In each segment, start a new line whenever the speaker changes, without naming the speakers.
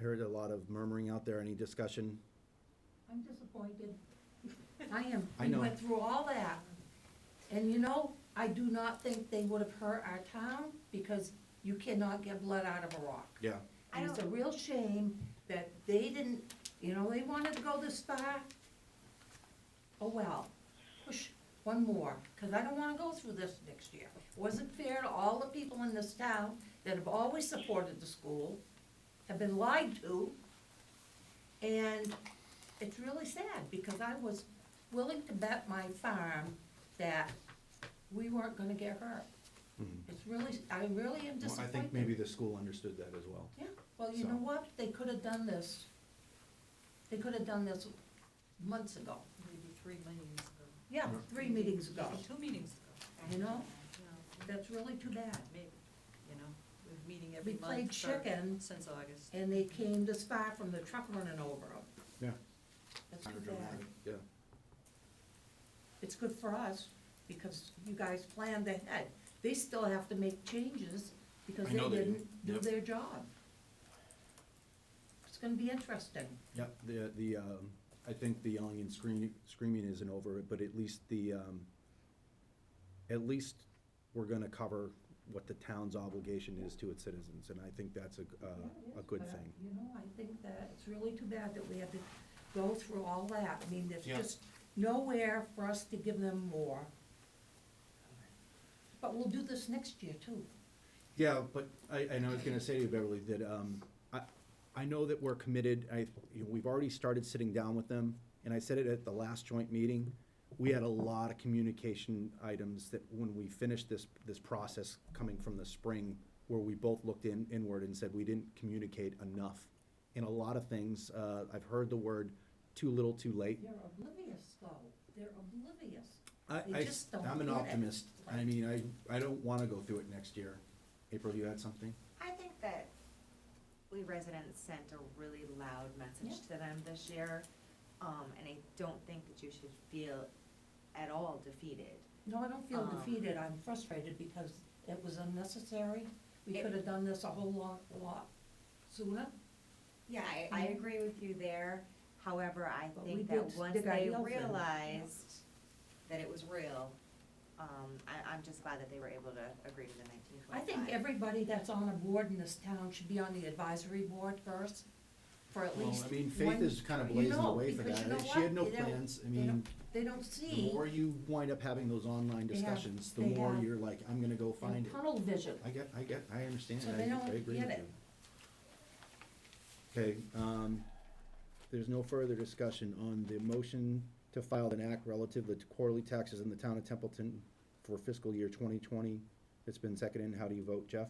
heard a lot of murmuring out there. Any discussion?
I'm disappointed. I am.
I know.
We went through all that. And you know, I do not think they would have hurt our town because you cannot get blood out of a rock.
Yeah.
I
And it's a
don't-
real shame that they didn't, you know, they wanted to go this far. Oh, well, push one more, because I don't want to go through this next year. It Wasn't fair to all the people in this town that have always supported the school, have been lied to. And it's really sad, because I was willing to bet my farm that we weren't gonna get hurt.
Mhm.
It's really, I really am
Well, I
disappointed.
think maybe the school understood that as well.
Yeah, well, you
So-
know what, they could have done this, they could have done this months ago,
Maybe three meetings ago.
yeah,
Yeah.
three meetings ago,
Maybe Two meetings ago.
You know?
Yeah,
that's really too bad.
Maybe, you know, we're meeting
We
every month.
played
for-
chicken,
Since August.
and they came this far from the truck running over them.
Yeah.
That's
Kind
too
of
bad.
dramatic. Yeah.
It's good for us, because you guys planned ahead, they still have to make changes, because
I
they
know they do.
didn't do
Yep.
their job. It's gonna be interesting,
Yep, the, the, um, I think the yelling and screaming, screaming isn't over, but at least the, um, at least we're gonna cover what the town's obligation is to its citizens, and I think that's a, g-
Yeah,
uh,
it
a
is,
good
but I-
thing.
You know, I think that it's really too bad that we had to go through all that. I mean, there's
Yeah.
just nowhere for us to give them more. But we'll do this next year too.
Yeah, but I, and I was gonna say to you, Beverly, that, um, I, I know that we're committed, I, you know, we've already started sitting down with them, and I said it at the last joint meeting. We had a lot of communication items that when we finished this, this process coming from the spring, where we both looked in, inward and said we didn't communicate enough. In a lot of things, uh, I've heard the word too little, too late.
They're oblivious though. They're oblivious.
I,
They
I,
just don't
I'm an
get it.
optimist. I
Right.
mean, I, I don't wanna go through it next year. April, you had something?
I think that we residents sent a really loud message to them this year, um, and I don't think that you should feel at all defeated.
No, I don't feel
Um,
defeated. I'm frustrated because it was unnecessary. We
It-
could have done this a whole lot, lot sooner.
Yeah, I, I agree with you there, however, I
But we
think
did
that once
stick our
they
heels in.
realized that it was real, um, I, I'm just glad that they were able to agree to the nineteen
I
twenty-five.
think everybody that's on a board in this town should be on the advisory board first, for at
Well,
least
I mean,
one-
Faith is kind of
you
blazing the
know,
way for
because
that.
you know
She had
what?
no
They don't-
plans. I
they don't-
mean,
They don't
the
see
more you wind up having those online
They have-
discussions, the
they
more
have-
you're like, I'm gonna go
in
find it.
tunnel vision.
I get, I get, I understand.
So
I-
they don't
I agree
get
with
it.
you. Okay, um, there's no further discussion on the motion to file an act relative to quarterly taxes in the town of Templeton for fiscal year twenty twenty. It's been seconded. How do you vote, Jeff?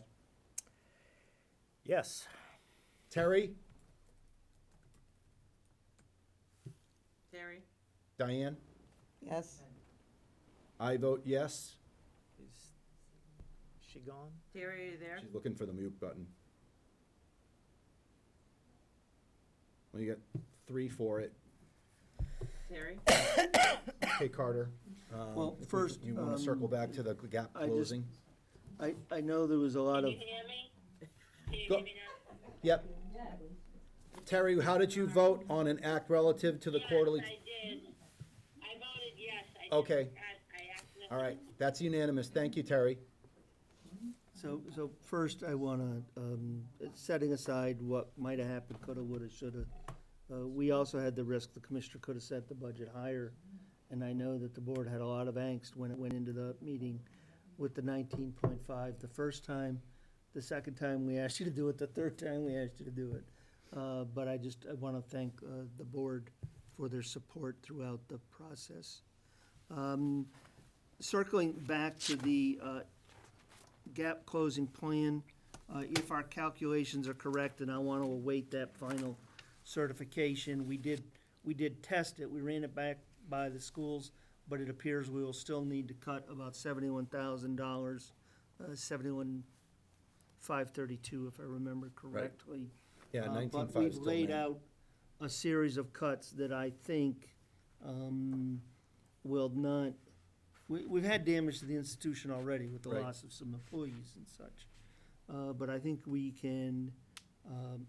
Yes.
Terry?
Terry?
Diane?
Yes,
I vote yes.
Is she gone?
Terry, are you there?
She's looking for the mute button. Well, you got three for it.
Terry?
Hey, Carter. um,
Well,
if we-
first,
You want to circle
um,
back to the gap
I just-
closing?
I, I know there was a lot of,
Can you hear me? Can you
Go-
hear me now?
Yep. Terry, how did you vote on an act relative to the quarterly?
Yes, I did. I voted yes. I did.
Okay.
I, I accidentally.
All right, that's unanimous. Thank you, Terry.
so, so first I wanna, um, setting aside what might have happened, coulda, woulda, shoulda. Uh, we also had the risk the commissioner could have set the budget higher, and I know that the board had a lot of angst when it went into the meeting with the nineteen point five the first time, the second time we asked you to do it, the third time we asked you to do it. Uh, but I just, I wanna thank, uh, the board for their support throughout the process. Um, circling back to the, uh, gap closing plan, uh, if our calculations are correct, and I want to await that final certification. We did, we did test it, we ran it back by the schools, but it appears we will still need to cut about seventy-one thousand dollars, uh, seventy-one, five thirty-two, if I remember correctly.
Yeah,
Uh,
nineteen
But
five
we've
still
laid
in.
out a series of cuts that I think um, will not, we, we've had damage to the institution already with the
Right.
loss of some employees and such. Uh, But I think we can um,